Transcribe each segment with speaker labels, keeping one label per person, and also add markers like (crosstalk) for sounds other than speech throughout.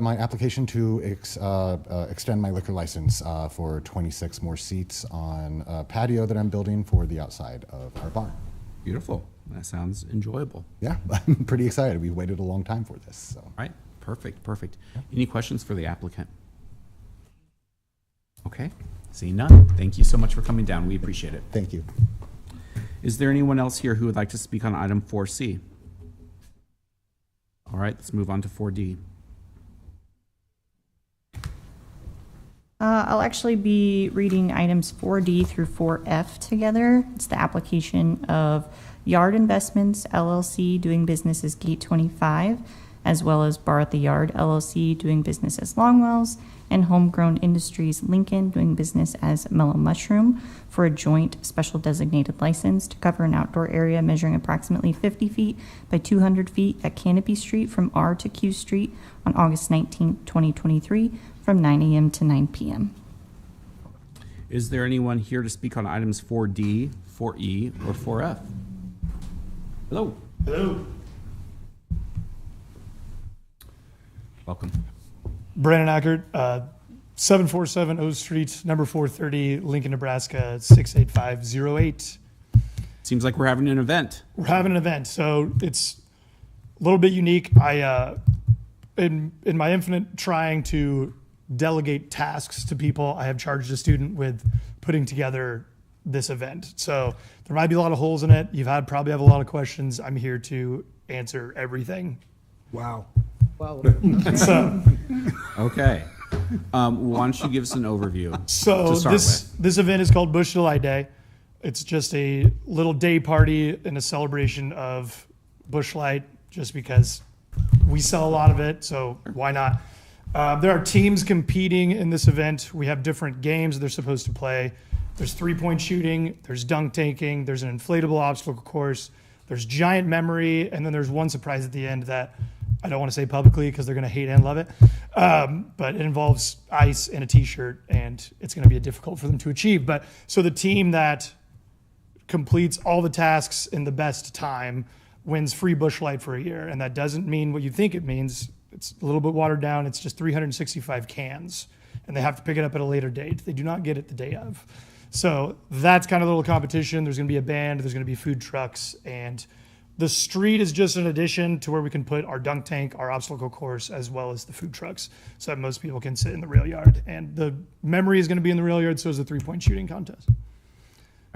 Speaker 1: My application to ex, uh, uh, extend my liquor license uh, for 26 more seats on a patio that I'm building for the outside of our bar.
Speaker 2: Beautiful. That sounds enjoyable.
Speaker 1: Yeah, (laughs) I'm pretty excited. We've waited a long time for this, so.
Speaker 2: All right, perfect, perfect. Any questions for the applicant? Okay, seeing none. Thank you so much for coming down. We appreciate it.
Speaker 1: Thank you.
Speaker 2: Is there anyone else here who would like to speak on item 4C? All right, let's move on to 4D.
Speaker 3: Uh, I'll actually be reading items 4D through 4F together. It's the application of Yard Investments LLC doing business as Gate 25, as well as Bar at the Yard LLC doing business as Longwells, and Homegrown Industries Lincoln doing business as Mellow Mushroom for a joint special designated license to cover an outdoor area measuring approximately 50 feet by 200 feet at Canopy Street from R to Q Street on August 19, 2023, from 9 AM to 9 PM.
Speaker 2: Is there anyone here to speak on items 4D, 4E, E, or 4F? Hello,
Speaker 4: Hello.
Speaker 2: welcome.
Speaker 4: Brandon Ackert, uh, 747 O Street, number 430, Lincoln, Nebraska, 68508.
Speaker 2: Seems like we're having an event.
Speaker 4: We're having an event, so it's a little bit unique. I, uh, in, in my infinite trying to delegate tasks to people, I have charged a student with putting together this event. So there might be a lot of holes in it. You've had probably have a lot of questions. I'm here to answer everything.
Speaker 5: Wow.
Speaker 4: So. (laughs)
Speaker 2: Okay. Um, why don't you give us an overview?
Speaker 4: So
Speaker 2: to start
Speaker 4: this this event is called Bush July Day. It's just a little day party and a celebration of bushlight, just because we sell a lot of it. So why not? Uh, there are teams competing in this event. We have different games they're supposed to play. There's three point shooting. There's dunk tanking. There's an inflatable obstacle course. There's giant memory, and then there's one surprise at the end that I don't want to say publicly because they're going to hate and love it. Um, but it involves ice and a T-shirt, and it's going to be difficult for them to achieve. But so the team that completes all the tasks in the best time wins free bush light for a year, and that doesn't mean what you think it means. It's a little bit watered down. It's just 365 cans, and they have to pick it up at a later date. They do not get it the day of. So that's kind of a little competition. There's going to be a band. There's going to be food trucks and the street is just an addition to where we can put our dunk tank, our obstacle course, as well as the food trucks, so that most people can sit in the rail yard. And the memory is going to be in the rail yard, so is the three point shooting contest.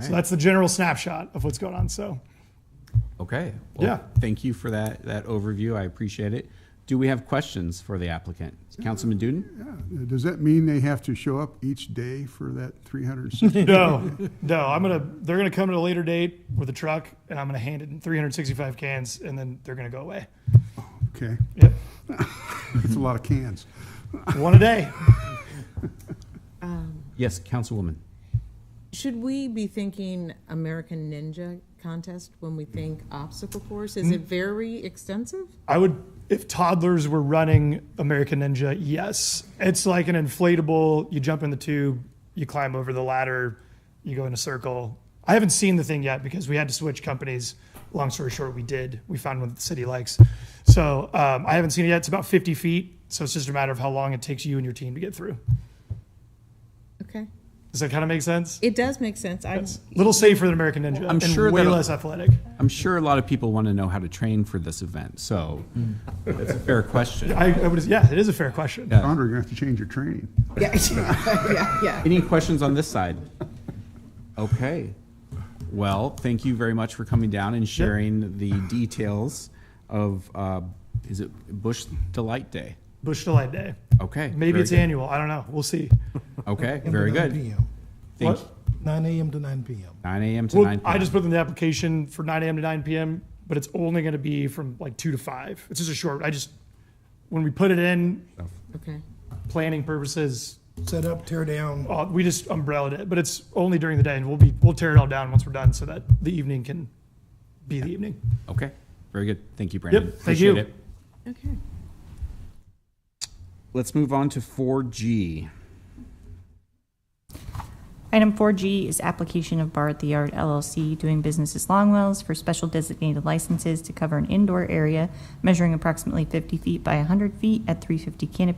Speaker 4: So that's the general snapshot of what's going on. So
Speaker 2: Okay. Well,
Speaker 4: Yeah.
Speaker 2: Thank you for that, that overview. I appreciate it. Do we have questions for the applicant? Councilman Duden?
Speaker 5: Yeah, Does that mean they have to show up each day for that
Speaker 4: (laughs)
Speaker 5: 360?
Speaker 4: no, no, I'm gonna they're gonna come at a later date with a truck, and I'm gonna hand it in 365 cans, and then they're gonna go away.
Speaker 5: Okay,
Speaker 4: Yep,
Speaker 5: that's a lot of cans.
Speaker 4: one a day.
Speaker 2: Yes, Councilwoman.
Speaker 6: Should we be thinking American Ninja contest when we think obstacle course? Is it very extensive?
Speaker 4: I would, if toddlers were running American Ninja, yes. It's like an inflatable, you jump in the tube, you climb over the ladder, you go in a circle. I haven't seen the thing yet because we had to switch companies. Long story short, we did. We found one that the city likes. So um, I haven't seen it yet. It's about 50 feet. So it's just a matter of how long it takes you and your team to get through.
Speaker 6: Okay.
Speaker 4: Does that kind of make sense?
Speaker 6: It does make sense. I,
Speaker 4: A little safer than American Ninja.
Speaker 2: I'm
Speaker 4: and
Speaker 2: sure
Speaker 4: way
Speaker 2: that'll-
Speaker 4: less athletic.
Speaker 2: I'm sure a lot of people want to know how to train for this event, so
Speaker 4: Mm.
Speaker 2: it's a fair
Speaker 4: (laughs)
Speaker 2: question.
Speaker 4: I, I would, yeah, it is a fair question.
Speaker 5: Founder, you're gonna have to change your training.
Speaker 6: yeah, (laughs) yeah, yeah.
Speaker 2: Any questions on this side? Okay. Well, thank you very much for coming down and sharing the details of, uh, is it Bush Delight Day?
Speaker 4: Bush Delight Day.
Speaker 2: Okay.
Speaker 4: Maybe
Speaker 2: very
Speaker 4: it's
Speaker 2: good.
Speaker 4: annual. I don't know. We'll see.
Speaker 2: Okay, very
Speaker 5: 9
Speaker 2: good.
Speaker 5: PM.
Speaker 2: Thank
Speaker 4: What?
Speaker 5: Nine AM to nine PM.
Speaker 2: Nine AM to
Speaker 4: Well,
Speaker 2: nine.
Speaker 4: I
Speaker 2: PM.
Speaker 4: just put in the application for 9 a.m. to 9 p.m., but it's only going to be from like 2 to 5. It's just a short, I just, when we put it in,
Speaker 6: Okay.
Speaker 4: planning purposes,
Speaker 5: Set up, tear down.
Speaker 4: uh, we just umbrellaed it, but it's only during the day and we'll be, we'll tear it all down once we're done so that the evening can be the evening.
Speaker 2: Okay, very good. Thank you, Brandon.
Speaker 4: thank
Speaker 2: Appreciate
Speaker 4: you.
Speaker 2: it.
Speaker 6: Okay.
Speaker 2: Let's move on to 4G.
Speaker 3: Item 4G is application of Bar at the Yard LLC doing business as Longwells for special designated licenses to cover an indoor area measuring approximately 50 feet by 100 feet at 350 Canopy